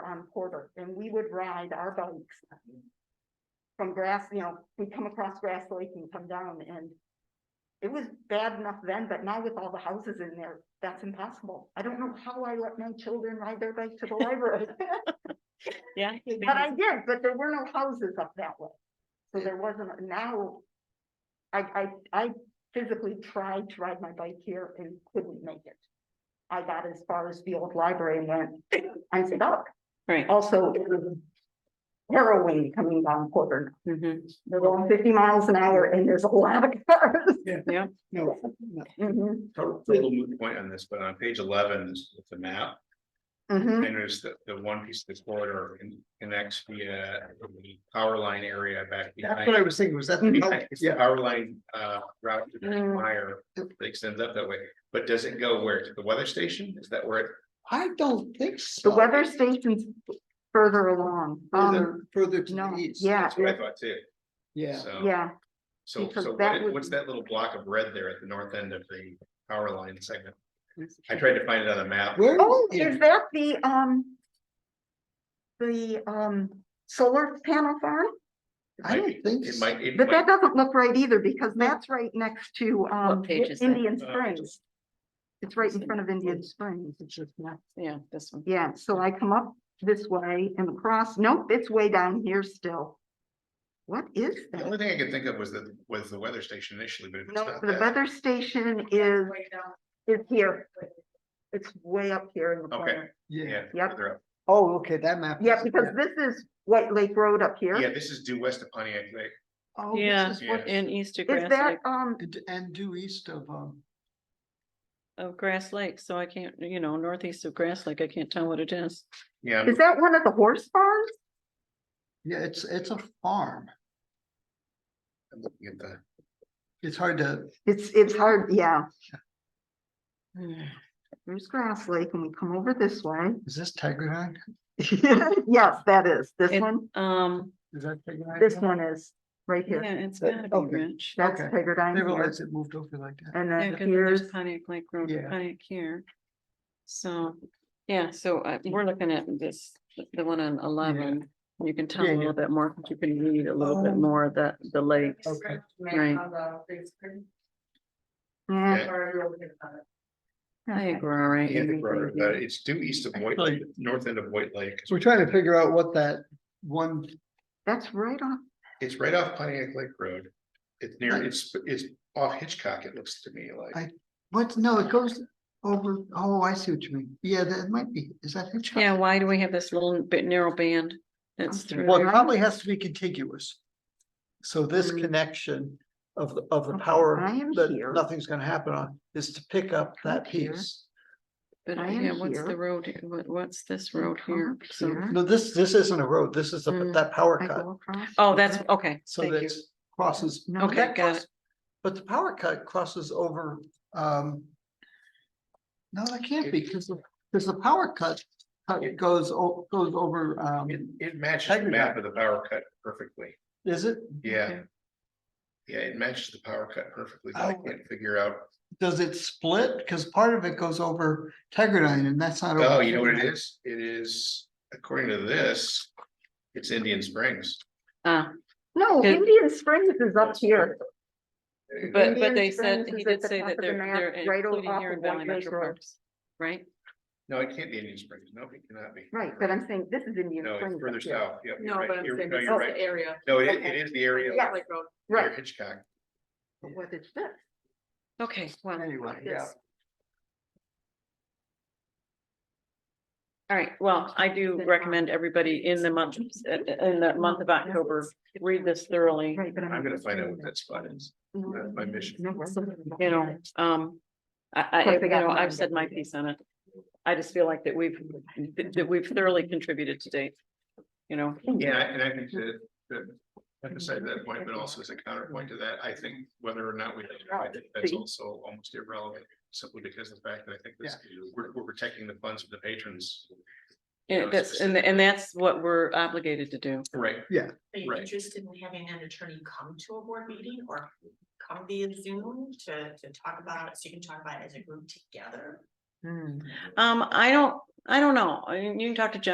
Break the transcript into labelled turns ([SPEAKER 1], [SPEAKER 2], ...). [SPEAKER 1] on Porter and we would ride our bikes. From grass, you know, we come across Grass Lake and come down and. It was bad enough then, but now with all the houses in there, that's impossible. I don't know how I let my children ride their bike to the library.
[SPEAKER 2] Yeah.
[SPEAKER 1] But I did, but there were no houses up that way. So there wasn't, now. I, I, I physically tried to ride my bike here and couldn't make it. I got as far as the old library and "Oh, went, I'm stuck.
[SPEAKER 2] Right.
[SPEAKER 1] Also, it was harrowing coming down Porter.
[SPEAKER 2] Mhm.
[SPEAKER 1] They're going fifty miles an hour and there's a lot of cars.
[SPEAKER 3] No,
[SPEAKER 1] Mhm,
[SPEAKER 4] Total total moot point on this, but on page eleven is with the map,
[SPEAKER 1] mhm.
[SPEAKER 4] and there's the, the one piece that's border con- connects the, uh, the power line area back
[SPEAKER 3] that's what I
[SPEAKER 4] behind.
[SPEAKER 3] was thinking, was that, the
[SPEAKER 4] behind-
[SPEAKER 3] color?
[SPEAKER 4] it's the
[SPEAKER 3] yeah,
[SPEAKER 4] Power line, uh, route to
[SPEAKER 1] Mm.
[SPEAKER 4] Meyer, that extends up that way, but does it go where, to the weather station? Is that where it?
[SPEAKER 3] I don't think so.
[SPEAKER 1] The weather station's further along. Um,
[SPEAKER 3] Further, further to
[SPEAKER 1] no,
[SPEAKER 3] the east.
[SPEAKER 1] yeah,
[SPEAKER 4] That's what I thought too,
[SPEAKER 3] Yeah,
[SPEAKER 4] so,
[SPEAKER 1] yeah,
[SPEAKER 4] so,
[SPEAKER 1] because
[SPEAKER 4] so what
[SPEAKER 1] that
[SPEAKER 4] is-
[SPEAKER 1] would
[SPEAKER 4] what's
[SPEAKER 1] be-
[SPEAKER 4] that little block of red there at the north end of the power line segment? I tried to find it on a map.
[SPEAKER 3] where
[SPEAKER 1] Oh,
[SPEAKER 3] is,
[SPEAKER 1] is
[SPEAKER 3] it?
[SPEAKER 1] that the, um, the, um, solar panel farm?
[SPEAKER 3] I
[SPEAKER 4] Might be-
[SPEAKER 3] don't think
[SPEAKER 4] It
[SPEAKER 3] so.
[SPEAKER 4] might, it
[SPEAKER 1] But
[SPEAKER 4] might,
[SPEAKER 1] that doesn't look right either because that's right next to, um,
[SPEAKER 2] page is that?
[SPEAKER 1] Indian
[SPEAKER 4] Uh,
[SPEAKER 1] Springs. It's right in front of Indian Springs. It's just not.
[SPEAKER 2] Yeah, this one.
[SPEAKER 1] Yeah, so I come up this way and across. Nope, it's way down here still. What is
[SPEAKER 4] the
[SPEAKER 1] that?
[SPEAKER 4] only thing I could think of was the, was the weather station initially, but if it's
[SPEAKER 1] No,
[SPEAKER 4] not
[SPEAKER 1] the
[SPEAKER 4] that.
[SPEAKER 1] weather station is, is here. It's way up here in the
[SPEAKER 4] Okay.
[SPEAKER 1] corner.
[SPEAKER 3] Yeah,
[SPEAKER 4] Yeah.
[SPEAKER 1] Yep.
[SPEAKER 4] further up.
[SPEAKER 3] oh, okay, that map.
[SPEAKER 1] Yeah,
[SPEAKER 3] is-
[SPEAKER 1] because this is White Lake Road up
[SPEAKER 4] Yeah,
[SPEAKER 1] here.
[SPEAKER 4] this is due west of Pontiac Lake.
[SPEAKER 3] Oh, this
[SPEAKER 2] Yeah.
[SPEAKER 3] is what-
[SPEAKER 2] In Easter
[SPEAKER 1] Is
[SPEAKER 2] Grass
[SPEAKER 1] that,
[SPEAKER 2] Lake,
[SPEAKER 1] um,
[SPEAKER 3] And, and due east of, um,
[SPEAKER 2] of Grass Lake, so I can't, you know, northeast of Grass Lake, I can't tell what it is.
[SPEAKER 4] Yeah,
[SPEAKER 1] is that one of the horse farms?
[SPEAKER 3] yeah, it's, it's a farm.
[SPEAKER 4] I'm looking at the-
[SPEAKER 3] It's hard to,
[SPEAKER 1] It's, it's hard, yeah. Mm. There's Grass Lake and we come over this way.
[SPEAKER 3] is this Tigerhide?
[SPEAKER 1] Yes, that is. This
[SPEAKER 2] It-
[SPEAKER 1] one,
[SPEAKER 2] Um,
[SPEAKER 3] Is that Tigerhide?
[SPEAKER 1] this one is right
[SPEAKER 2] yeah,
[SPEAKER 1] here.
[SPEAKER 2] it's
[SPEAKER 3] That-
[SPEAKER 2] gotta be
[SPEAKER 3] okay.
[SPEAKER 2] rich.
[SPEAKER 1] That's
[SPEAKER 3] okay. I
[SPEAKER 1] Pegadine
[SPEAKER 3] didn't
[SPEAKER 1] here.
[SPEAKER 3] realize it moved over like that.
[SPEAKER 1] And
[SPEAKER 2] Yeah,
[SPEAKER 1] then
[SPEAKER 2] 'cause then there's
[SPEAKER 1] here's,
[SPEAKER 2] Pontiac Lake Road,
[SPEAKER 3] Yeah.
[SPEAKER 2] Pontiac here. So, yeah, so uh, we're looking at this, the one on eleven. You can tell
[SPEAKER 3] Yeah,
[SPEAKER 2] a
[SPEAKER 3] yeah.
[SPEAKER 2] little bit more, 'cause you can read a little bit
[SPEAKER 3] Oh.
[SPEAKER 2] more of that, the lakes.
[SPEAKER 3] Okay.
[SPEAKER 2] Right.
[SPEAKER 1] yeah,
[SPEAKER 4] Yeah.
[SPEAKER 2] I think we're all right.
[SPEAKER 4] yeah,
[SPEAKER 2] in
[SPEAKER 4] the
[SPEAKER 2] reading
[SPEAKER 4] road,
[SPEAKER 2] here.
[SPEAKER 4] uh, It's due east of White,
[SPEAKER 3] Actually-
[SPEAKER 4] north end of White Lake.
[SPEAKER 3] So we're trying to figure out what that one,
[SPEAKER 1] that's right on.
[SPEAKER 4] It's right off Pontiac Lake Road. It's near, it's, it's off Hitchcock, it looks to me like.
[SPEAKER 3] I- what, no, it goes over, oh, I see what you mean. Yeah, that might be, is that Hitchcock?
[SPEAKER 2] Yeah, why do we have this little bit narrow band? That's
[SPEAKER 1] Okay.
[SPEAKER 2] through.
[SPEAKER 3] Well, it
[SPEAKER 2] there?
[SPEAKER 3] probably has to be contiguous. So this
[SPEAKER 1] Mm.
[SPEAKER 3] connection of, the of the
[SPEAKER 1] Okay,
[SPEAKER 3] power
[SPEAKER 1] I am
[SPEAKER 3] that
[SPEAKER 1] here.
[SPEAKER 3] nothing's gonna happen on is to pick up that
[SPEAKER 1] here.
[SPEAKER 3] piece.
[SPEAKER 2] But
[SPEAKER 1] I
[SPEAKER 2] yeah,
[SPEAKER 1] am
[SPEAKER 2] what's
[SPEAKER 1] here.
[SPEAKER 2] the road, here? what, what's this
[SPEAKER 1] Come
[SPEAKER 2] road here?
[SPEAKER 1] up
[SPEAKER 2] So,
[SPEAKER 1] here.
[SPEAKER 3] No, this, this isn't a road. This is a-
[SPEAKER 2] Mm.
[SPEAKER 3] that power
[SPEAKER 1] I
[SPEAKER 3] cut.
[SPEAKER 1] go across.
[SPEAKER 2] oh, that's, okay,
[SPEAKER 3] So
[SPEAKER 2] thank you.
[SPEAKER 3] that crosses.
[SPEAKER 1] No,
[SPEAKER 3] but
[SPEAKER 2] Okay,
[SPEAKER 3] that
[SPEAKER 2] got
[SPEAKER 3] cross- But the power cut crosses over, um. No, that can't be because, because the power cut, cut goes, o- goes over, um,
[SPEAKER 4] It, it matches the map of the power cut perfectly.
[SPEAKER 3] is it,
[SPEAKER 4] Yeah.
[SPEAKER 2] Okay.
[SPEAKER 4] Yeah, it matches the power cut perfectly. but I
[SPEAKER 3] Oh.
[SPEAKER 4] can't figure out.
[SPEAKER 3] does it split? Because part of it goes over Tigerine and that's not. over
[SPEAKER 4] Oh, you know what it
[SPEAKER 3] Tigerine.
[SPEAKER 4] is? It is, according to this, it's Indian Springs.
[SPEAKER 2] Ah,
[SPEAKER 1] No,
[SPEAKER 2] Good.
[SPEAKER 1] Indian Springs is up here.
[SPEAKER 2] but,
[SPEAKER 1] Indian
[SPEAKER 2] but they said,
[SPEAKER 1] Springs
[SPEAKER 2] he
[SPEAKER 1] is at
[SPEAKER 2] did
[SPEAKER 1] the
[SPEAKER 2] say
[SPEAKER 1] top
[SPEAKER 2] that
[SPEAKER 1] of the
[SPEAKER 2] they're,
[SPEAKER 1] map,
[SPEAKER 2] they're
[SPEAKER 1] right o-
[SPEAKER 2] including
[SPEAKER 1] off
[SPEAKER 2] here
[SPEAKER 1] of
[SPEAKER 2] in Valley
[SPEAKER 1] White Lake
[SPEAKER 2] Metro
[SPEAKER 1] Road.
[SPEAKER 2] Parks, right?
[SPEAKER 4] No, it can't be Indian Springs. No, it cannot be.
[SPEAKER 1] Right, but I'm saying this is Indian
[SPEAKER 4] No,
[SPEAKER 1] Springs.
[SPEAKER 4] it's
[SPEAKER 1] up
[SPEAKER 4] further
[SPEAKER 1] here.
[SPEAKER 4] south. Yep. you're right. You're- no,
[SPEAKER 1] this
[SPEAKER 4] you're
[SPEAKER 1] is
[SPEAKER 4] right.
[SPEAKER 2] area.
[SPEAKER 4] No, it,
[SPEAKER 2] Okay.
[SPEAKER 4] it is the area.
[SPEAKER 1] Yeah.
[SPEAKER 4] near
[SPEAKER 1] Right,
[SPEAKER 4] Hitchcock.
[SPEAKER 1] but what is this?
[SPEAKER 2] Okay, well,
[SPEAKER 3] Anyway, yeah.
[SPEAKER 2] all right, well, I do recommend everybody in the month, uh, in the month of October, read this thoroughly.
[SPEAKER 1] Right, but I'm.
[SPEAKER 4] I'm gonna find out what that spot is. that's my mission.
[SPEAKER 2] you know, um, I, I,
[SPEAKER 1] course, they
[SPEAKER 2] you
[SPEAKER 1] got
[SPEAKER 2] know,
[SPEAKER 1] mine,
[SPEAKER 2] I've
[SPEAKER 1] but-
[SPEAKER 2] said my piece on it. I just feel like that we've, that that we've thoroughly contributed to date, you know,
[SPEAKER 4] Yeah, and I think that, that emphasize that point, but also as a counterpoint to that, I think whether or not we, I think that's also almost irrelevant. Simply because of the fact that I think this, we're, we're protecting the funds of the patrons.
[SPEAKER 2] and that's, and, and that's what we're obligated to do.
[SPEAKER 4] Right.
[SPEAKER 5] Are you
[SPEAKER 4] Right.
[SPEAKER 5] interested in having an attorney come to a board meeting or come via Zoom to, to talk about it, so you can talk about it as a group together?
[SPEAKER 1] Hmm.
[SPEAKER 2] Um, I don't, I don't know, I mean, you can talk to Jen